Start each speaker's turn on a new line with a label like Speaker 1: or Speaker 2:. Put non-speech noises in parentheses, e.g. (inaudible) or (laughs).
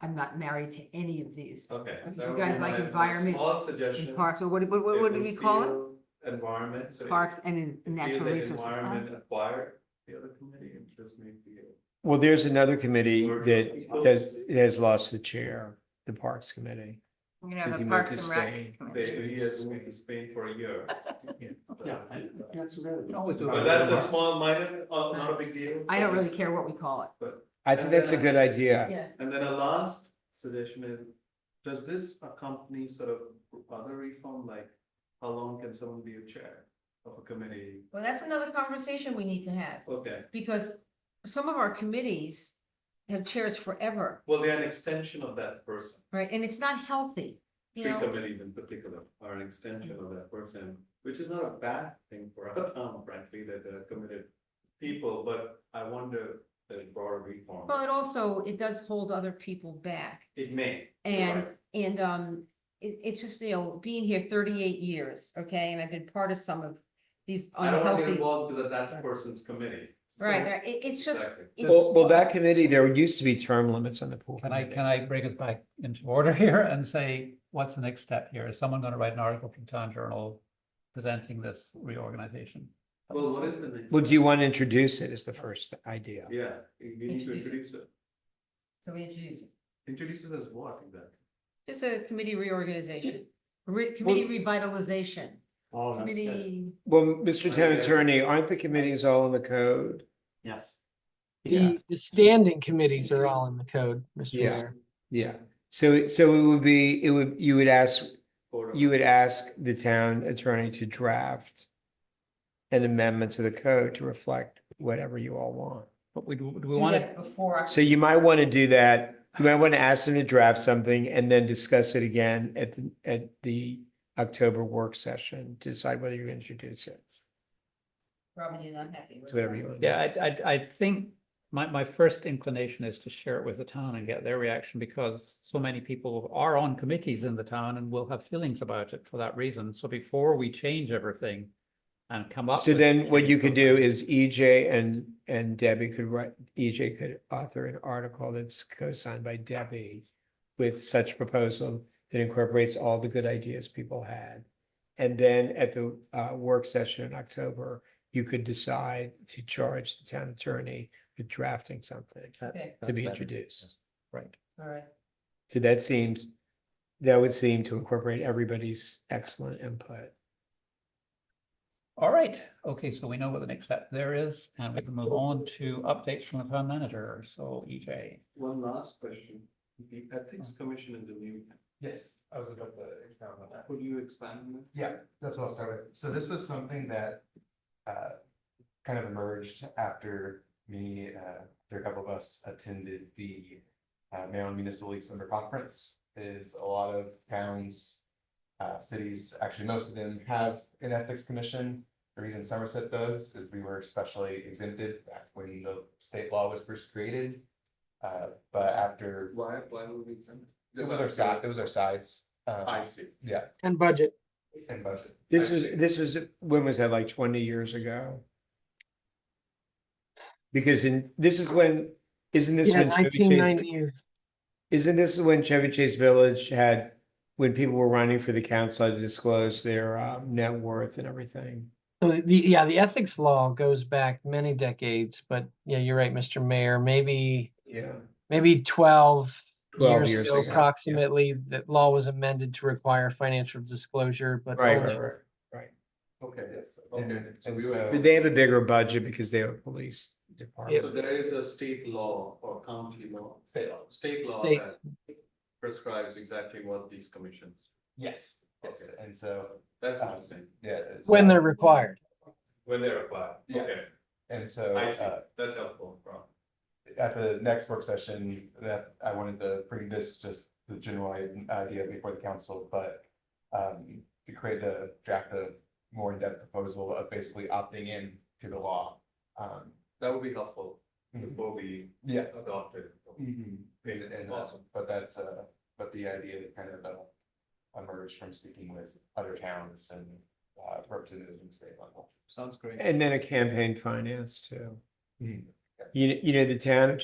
Speaker 1: I'm not married to any of these.
Speaker 2: Okay.
Speaker 1: You
Speaker 2: so that would
Speaker 1: guys
Speaker 2: be
Speaker 1: like
Speaker 2: my- my
Speaker 1: environment
Speaker 2: Small
Speaker 1: In
Speaker 2: suggestion.
Speaker 1: parks, or what, what, what what
Speaker 2: It
Speaker 1: do
Speaker 2: would
Speaker 1: we call it?
Speaker 2: feel Environment, so. it-
Speaker 1: Parks and in-
Speaker 2: it feels
Speaker 1: natural
Speaker 2: like
Speaker 1: resources. Huh?
Speaker 2: Environment acquired the other committee and just made the.
Speaker 3: Well, there's another committee
Speaker 2: Or-
Speaker 3: that has, has lost the chair, the Parks Committee.
Speaker 1: Uh,
Speaker 4: We're gonna have
Speaker 3: Because
Speaker 4: a
Speaker 3: he moved
Speaker 4: Parks
Speaker 3: to
Speaker 4: and Rec.
Speaker 3: Spain.
Speaker 4: committee.
Speaker 2: They, he has moved to Spain for a year.
Speaker 3: (laughs) Yeah.
Speaker 2: So-
Speaker 5: That's really.
Speaker 2: But that's a small minor, uh, not a big deal.
Speaker 1: I don't
Speaker 2: but
Speaker 1: really
Speaker 2: it's-
Speaker 1: care what we call it.
Speaker 2: But,
Speaker 3: I think that's a good idea.
Speaker 4: Yeah,
Speaker 2: and then a last suggestion is, does this accompany sort of other reform, like how long can someone be a chair of a committee?
Speaker 4: well, that's another conversation we need to have,
Speaker 2: Okay,
Speaker 4: because some of our committees have chairs forever,
Speaker 2: well, they're an extension of that person.
Speaker 4: right? And it's not healthy, you
Speaker 2: Three
Speaker 4: know?
Speaker 2: committees in particular are an extension of that person, which is not a bad thing for our town, frankly, that they're committed people, but I wonder the broader reform.
Speaker 4: Well, it also, it does hold other people back.
Speaker 2: It may. you're
Speaker 4: And,
Speaker 2: right.
Speaker 4: and, um, it, it's just, you know, being here thirty-eight years, okay, and I've been part of some of these
Speaker 2: I don't want to get
Speaker 4: unhealthy.
Speaker 2: involved with that's person's committee. So-
Speaker 4: Right, right, it, it's just,
Speaker 2: Exactly.
Speaker 4: it's-
Speaker 3: Well, well, that committee, there used to be term limits on the pool.
Speaker 5: Can I,
Speaker 3: committee.
Speaker 5: can I bring us back into order (laughs) here and say, what's the next step here? Is someone gonna write an article from Town Journal presenting this reorganization?
Speaker 2: Well, what is the next?
Speaker 3: Well, do you want to introduce it as the first idea?
Speaker 2: Yeah, we we need to
Speaker 4: Introduce it.
Speaker 2: introduce it.
Speaker 4: so we introduce it.
Speaker 2: Introduce it as what exactly?
Speaker 4: Just a committee reorganization, re- committee revitalization,
Speaker 6: Oh, that's good.
Speaker 4: committee.
Speaker 3: Well, Mr. Town
Speaker 2: Okay.
Speaker 3: Attorney, aren't the committees all in the code?
Speaker 6: Yes.
Speaker 3: Yeah.
Speaker 7: The, the standing committees are all in the code, Mr.
Speaker 3: Yeah.
Speaker 7: Mayor.
Speaker 3: Yeah, so, so it would be, it would, you would ask,
Speaker 2: Board of-
Speaker 3: you would ask the town attorney to draft an amendment to the code to reflect whatever you all want.
Speaker 5: But we, do we
Speaker 4: do
Speaker 5: want to,
Speaker 4: that Before.
Speaker 3: So you might want to do that. You might want to ask them to draft something and then discuss it again at, the at the October work session, to decide whether you're going to introduce it,
Speaker 4: Robin, you're not happy. with
Speaker 3: whatever
Speaker 4: that.
Speaker 3: you want.
Speaker 5: yeah, I, I, I think my, my first inclination is to share it with the town and get their reaction because so many people are on committees in the town and will have feelings about it for that reason. So before we change everything and come up.
Speaker 3: So
Speaker 5: with
Speaker 3: then what
Speaker 5: change
Speaker 3: you could do
Speaker 5: programs-
Speaker 3: is EJ and, and Debbie could write, EJ could author an article that's co-signed by Debbie with such proposal that incorporates all the good ideas people had. And then at the uh, work session in October, you could decide to charge the town attorney with drafting something
Speaker 5: That-
Speaker 4: Okay,
Speaker 3: to be
Speaker 5: that-
Speaker 3: introduced. Right.
Speaker 4: all right.
Speaker 3: So that seems, that would seem to incorporate everybody's excellent input.
Speaker 5: All right, okay, so we know what the next step there is, and we can move on to updates from the town manager, so E EJ.
Speaker 2: One last question. The Ethics Commission in the new,
Speaker 8: Yes, I was about to expound on that.
Speaker 2: could you expand on that?
Speaker 8: Yeah, that's what I'll start with. So this was something that uh kind of emerged after me, uh, there are a couple of us attended the uh Maryland Municipal League Summer Conference. Is a lot of towns, uh, cities, actually most of them have an ethics commission. The reason Somerset does is we were especially exempted back when the state law was first created. Uh, but after,
Speaker 2: Why, why would we? exempt?
Speaker 8: it was our size, it was our size. um,
Speaker 2: I see.
Speaker 8: Yeah,
Speaker 7: And budget.
Speaker 8: and budget.
Speaker 3: This was,
Speaker 2: Actually.
Speaker 3: this was, when was that, like twenty years ago? Because in, this is when, isn't this
Speaker 7: Yeah,
Speaker 3: when Chevy Chase,
Speaker 7: 1990s.
Speaker 3: isn't this when Chevy Chase Village had, when people were running for the council had to disclose their um, net worth and everything?
Speaker 7: So the, yeah, the ethics law goes back many decades, but yeah, you're right, Mr. Mayor, maybe,
Speaker 3: Yeah.
Speaker 7: maybe 12
Speaker 3: 12
Speaker 7: years
Speaker 3: years
Speaker 7: ago
Speaker 3: ago, yeah.
Speaker 7: approximately, that law was amended to require financial disclosure, but
Speaker 3: Right,
Speaker 7: only-
Speaker 3: right, right.
Speaker 2: Okay, yes,
Speaker 8: And-
Speaker 2: okay. So
Speaker 8: and
Speaker 2: we were-
Speaker 8: so-
Speaker 3: Did they have a bigger budget because they have a police
Speaker 2: So
Speaker 3: department?
Speaker 2: there is a state law or county law,
Speaker 8: State law.
Speaker 2: state law
Speaker 7: State.
Speaker 2: that prescribes exactly what these commissions,
Speaker 8: Yes.
Speaker 2: yes.
Speaker 8: And so,
Speaker 2: that's
Speaker 8: Ah.
Speaker 2: what I'm saying,
Speaker 8: yeah. it's,
Speaker 7: when
Speaker 8: uh,
Speaker 7: they're required.
Speaker 2: when they're applied,
Speaker 8: Yeah.
Speaker 2: okay,
Speaker 8: And so,
Speaker 2: I see,
Speaker 8: uh,
Speaker 2: that's helpful, Ron.
Speaker 8: at the next work session, that I wanted to bring this, just the general i- idea before the council, but. Um, to create the draft a more in-depth proposal of basically opting in to the law. Um,
Speaker 2: That would be helpful
Speaker 8: Mhm.
Speaker 2: before we
Speaker 8: yeah.
Speaker 2: adopt it.
Speaker 8: And, and, uh,
Speaker 2: Awesome.
Speaker 8: but that's, uh, but the idea that kind of, uh, emerged from speaking with other towns and, uh, representatives in the state level.
Speaker 2: Sounds great.
Speaker 3: And then a campaign finance too.
Speaker 8: Mhm.
Speaker 3: You, you know, the town of